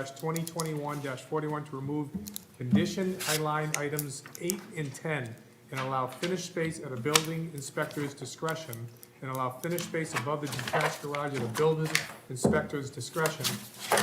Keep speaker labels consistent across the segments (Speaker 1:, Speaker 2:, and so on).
Speaker 1: twenty twenty-one forty-one to remove condition line items eight and ten and allow finished space at a building inspector's discretion and allow finished space above the detached garage at a building inspector's discretion.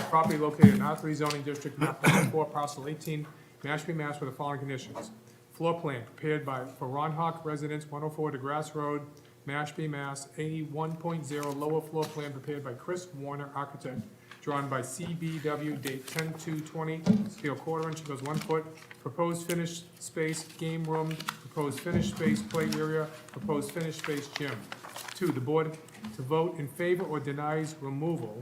Speaker 1: Property located in R three zoning district, map four parcel eighteen, Mashpee, Mass. with the following conditions. Floor plan prepared by, for Ron Hawk Residence, one oh four DeGrasse Road, Mashpee, Mass. eighty-one point zero, lower floor plan prepared by Chris Warner Architect, drawn by CBW, date 10/2/20, steel quarter inch, goes one foot. Proposed finished space, game room, proposed finished space, play area, proposed finished space, gym. Two, the board to vote in favor or denies removal.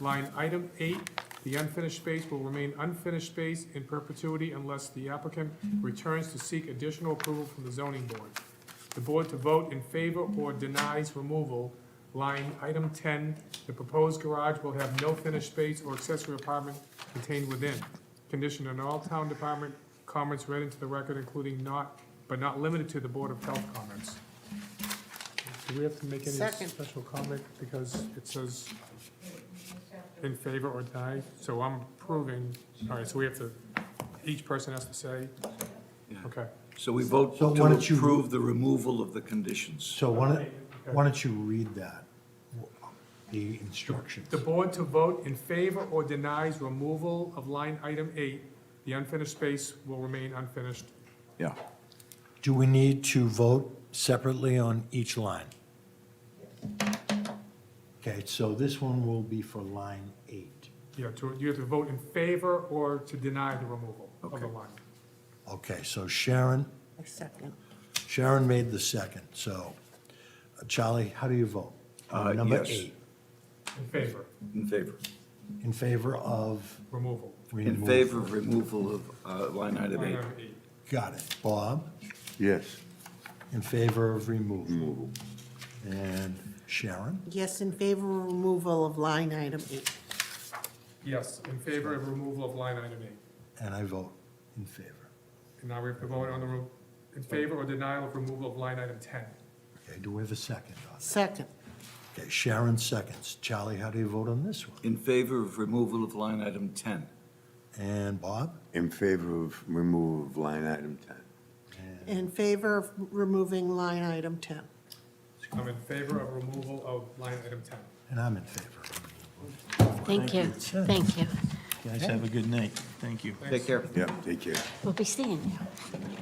Speaker 1: Line item eight, the unfinished space will remain unfinished space in perpetuity unless the applicant returns to seek additional approval from the zoning board. The board to vote in favor or denies removal Line item ten, the proposed garage will have no finished space or accessory apartment contained within. Condition on all town department comments read into the record, including not, but not limited to the Board of Health comments. Do we have to make any
Speaker 2: Second.
Speaker 1: special comment because it says in favor or deny? So I'm approving, all right, so we have to, each person has to say, okay.
Speaker 3: So we vote
Speaker 4: So why
Speaker 3: to
Speaker 4: don't you-
Speaker 3: approve the removal of the conditions.
Speaker 4: So why don't, why don't you read that, the instructions?
Speaker 1: The board to vote in favor or denies removal of line item eight, the unfinished space will remain unfinished.
Speaker 3: Yeah.
Speaker 4: Do we need to vote separately on each line? Okay, so this one will be for line eight,
Speaker 1: Yeah, to, you have to vote in favor or to deny the removal of the
Speaker 3: Okay.
Speaker 1: line.
Speaker 4: okay, so Sharon,
Speaker 2: A second.
Speaker 4: Sharon made the second, so, uh, Charlie, how do you vote? On
Speaker 3: Uh,
Speaker 4: Number
Speaker 3: yes.
Speaker 4: eight,
Speaker 1: In favor,
Speaker 3: In favor.
Speaker 4: in favor of
Speaker 1: removal.
Speaker 3: In
Speaker 4: removal.
Speaker 3: favor of removal of uh, line item
Speaker 1: Line
Speaker 3: eight.
Speaker 1: item eight.
Speaker 4: Got it, Bob,
Speaker 5: Yes.
Speaker 4: in favor of removal. Removal. And Sharon?
Speaker 2: Yes, in favor of removal of line item eight.
Speaker 1: Yes, in favor of removal of line item eight.
Speaker 4: And I vote in favor.
Speaker 1: And now we have to vote on the, re- in favor or denial of removal of line item ten.
Speaker 4: Okay, do we have a second on it?
Speaker 2: Second,
Speaker 4: Okay, Sharon seconds. Charlie, how do you vote on this one?
Speaker 3: In favor of removal of line item 10.
Speaker 4: And Bob?
Speaker 5: In favor of removal of line item 10.
Speaker 2: in favor of removing line item 10.
Speaker 1: I'm in favor of removal of line item ten.
Speaker 4: And I'm in favor.
Speaker 6: Thank you,
Speaker 4: Sure.
Speaker 6: thank you.
Speaker 4: Guys, have a good night. Thank you.
Speaker 3: Take care.
Speaker 5: Yeah, take care.
Speaker 6: We'll be seeing you.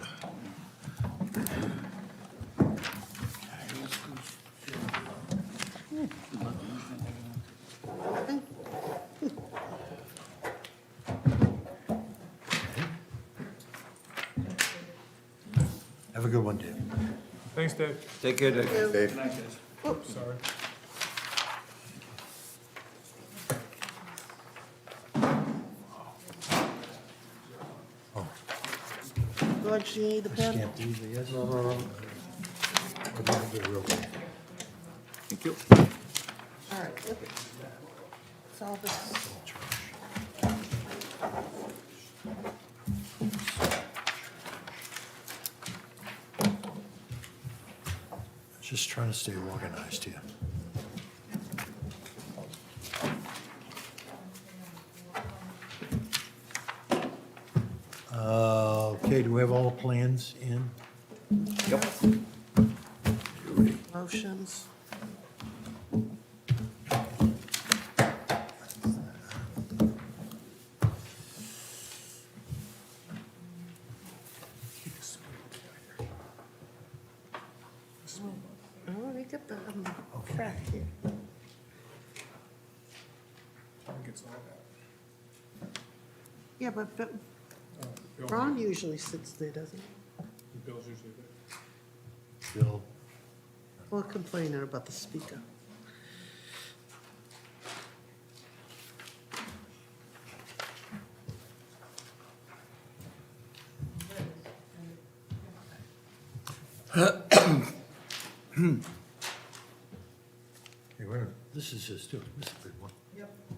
Speaker 4: Have a good one, Dave.
Speaker 1: Thanks, Dave.
Speaker 3: Take care, Dick.
Speaker 5: Dave?
Speaker 1: Sorry.
Speaker 2: George, you need the pen?
Speaker 4: Can't leave the yes. We're gonna have to real quick.
Speaker 3: Thank you.
Speaker 2: All right. It's all this.
Speaker 4: Just trying to stay organized here. Uh, Okay, do we have all the plans in?
Speaker 3: Yep.
Speaker 2: Motions. Oh, they got the um, crack here.
Speaker 1: I think it's all that.
Speaker 2: Yeah, but but
Speaker 1: Bill-
Speaker 2: Ron usually sits there, doesn't he?
Speaker 1: Bill's usually there.
Speaker 4: Bill?
Speaker 2: Or complaining about the speaker.
Speaker 4: Hey, wait a minute, this is his too, this is a big one. Yep.